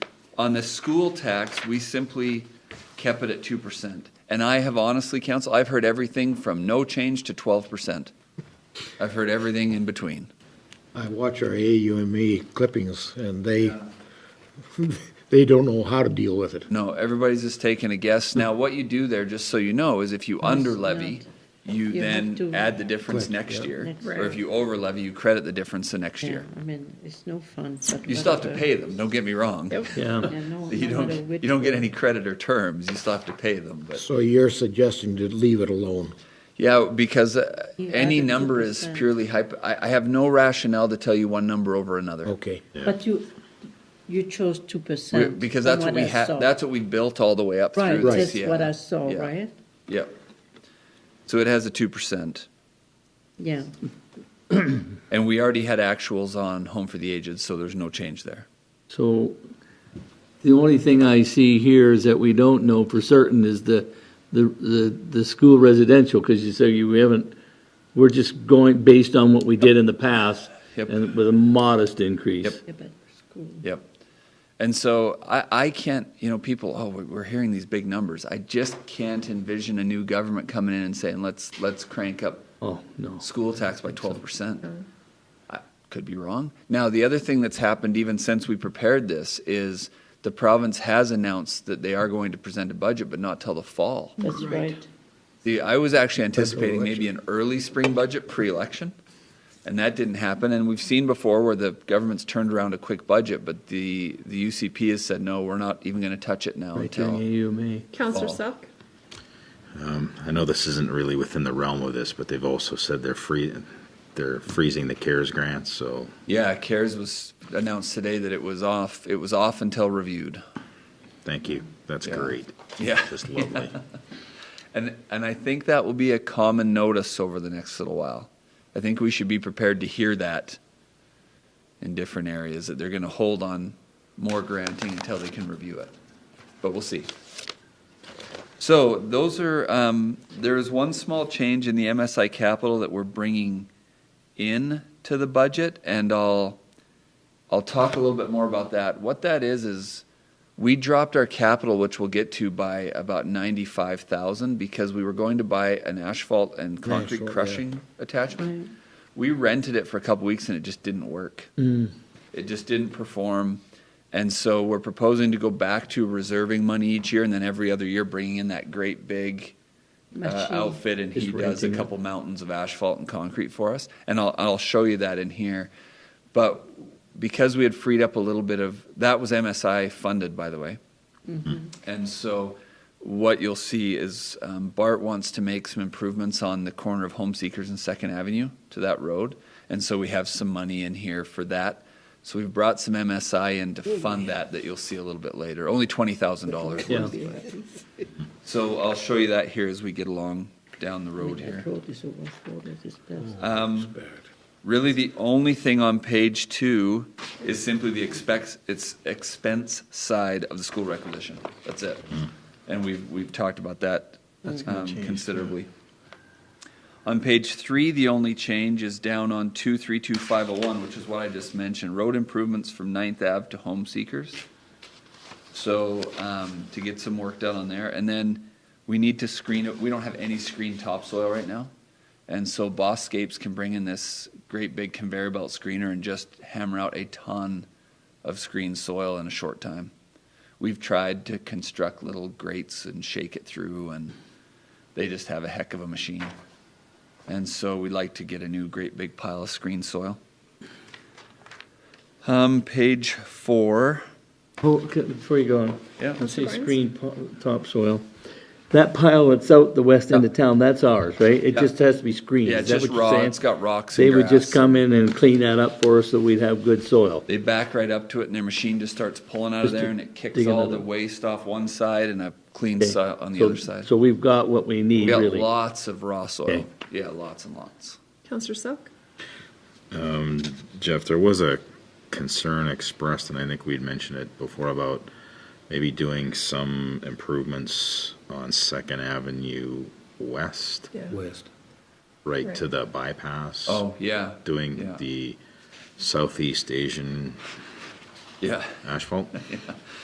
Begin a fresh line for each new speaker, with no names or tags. On the school tax, we simply kept it at two percent. And I have honestly, council, I've heard everything from no change to twelve percent. I've heard everything in between.
I watch our AUME E clippings, and they, they don't know how to deal with it.
No, everybody's just taking a guess. Now, what you do there, just so you know, is if you under levy, you
You have
then
to-
add the difference
Correct,
next
yeah.
year.
Next
Or
year.
if you over levy, you credit the difference the next year.
I mean, it's no fun. but
You still have to
whatever.
pay them, don't get me wrong.
Yeah, no-
You
no matter
don't,
which
you don't get
way.
any credit or terms, you still have to pay them, but.
So you're suggesting to leave it alone?
Yeah, because uh,
You
any
added
number is
2%.
purely hypo, I, I have no rationale to tell you one number over another.
Okay.
But you, you chose two
We-
percent.
Because that's what we have, that's what we built all the way up through.
Right,
the
that's
CIP.
what I saw,
Yeah.
right?
Yep. So it has a two percent.
Yeah,
And we already had actuals on Home for the Aged, so there's no change there.
So the only thing I see here is that we don't know for certain is the, the, the, the school residential, because you say you we haven't, we're just going based on what we did in the past
Yep.
and with a modest increase.
Yep.
yeah, but school.
Yep. And so I, I can't, you know, people, oh, we- we're hearing these big numbers. I just can't envision a new government coming in and saying, let's, let's crank up
Oh, no.
school tax by twelve percent. I Could be wrong. Now, the other thing that's happened even since we prepared this is the province has announced that they are going to present a budget, but not till the fall.
That's right.
The, I was actually anticipating maybe an early spring budget pre-election, and that didn't happen. And we've seen before where the government's turned around a quick budget, but the, the UCP has said, no, we're not even going to touch it now
Right during
until.
AUMA.
Counselor
Well-
Selk?
I know this isn't really within the realm of this, but they've also said they're free, they're freezing the CARES grant, so
Yeah, CARES was announced today that it was off, it was off until reviewed.
thank you. That's
Yeah.
great.
Yeah.
Just lovely.
And, and I think that will be a common notice over the next little while. I think we should be prepared to hear that in different areas, that they're going to hold on more granting until they can review it. But we'll see. So those are, um, there is one small change in the MSI capital that we're bringing in to the budget, and I'll, I'll talk a little bit more about that. What that is, is we dropped our capital, which we'll get to, by about ninety-five thousand because we were going to buy an asphalt and concrete
Asphalt, yeah.
crushing attachment. We rented it for a couple weeks and it just didn't work.
Mm.
It just didn't perform. And so we're proposing to go back to reserving money each year and then every other year bringing in that great big uh,
Machine.
outfit and he
Just
does a
renting it.
couple mountains of asphalt and concrete for us. And I'll, I'll show you that in here. But because we had freed up a little bit of, that was MSI funded, by the way. And so what you'll see is um, Bart wants to make some improvements on the corner of Home Seekers and Second Avenue to that road. And so we have some money in here for that. So we've brought some MSI in to fund that, that you'll see a little bit later. Only twenty thousand dollars
Yeah.
worth. So I'll show you that here as we get along down the road here.
That road is overflowed, it's best.
Really, the only thing on page two is simply the expects, it's expense side of the school requisition. That's it. And we've, we've talked about that um, considerably. On page three, the only change is down on two, three, two, five, oh, one, which is what I just mentioned, road improvements from Ninth Ave to Home Seekers. So, um, to get some work done on there, and then we need to screen it, we don't have any screen topsoil right now. And so Bosscapes can bring in this great big conveyor belt screener and just hammer out a ton of screen soil in a short time. We've tried to construct little grates and shake it through and they just have a heck of a machine. And so we'd like to get a new great big pile of screen soil. Um, page four.
Oh, c- Before you go on.
Yeah.
I say
Barnes?
screen po- topsoil. That pile that's out the west end of town, that's ours, right? It
Yeah.
just has to be screened.
Yeah,
Is that
just
what you're
raw.
saying?
It's got rocks and
They would just
grass.
come in and clean that up for us so we'd have good soil.
They back right up to it, and their machine just starts pulling out of
Just
there,
to
and it kicks
dig
all
another-
the waste off one side and a clean
Okay.
soil on the
So-
other side.
So we've got what we need,
We got
really.
lots of raw soil.
Okay.
Yeah, lots and lots.
Counselor Selk?
Jeff, there was a concern expressed, and I think we'd mentioned it before about maybe doing some improvements on Second Avenue West,
Yeah.
West.
right to
Right.
the bypass.
Oh yeah,
Doing
yeah.
the Southeast Asian
yeah.
asphalt.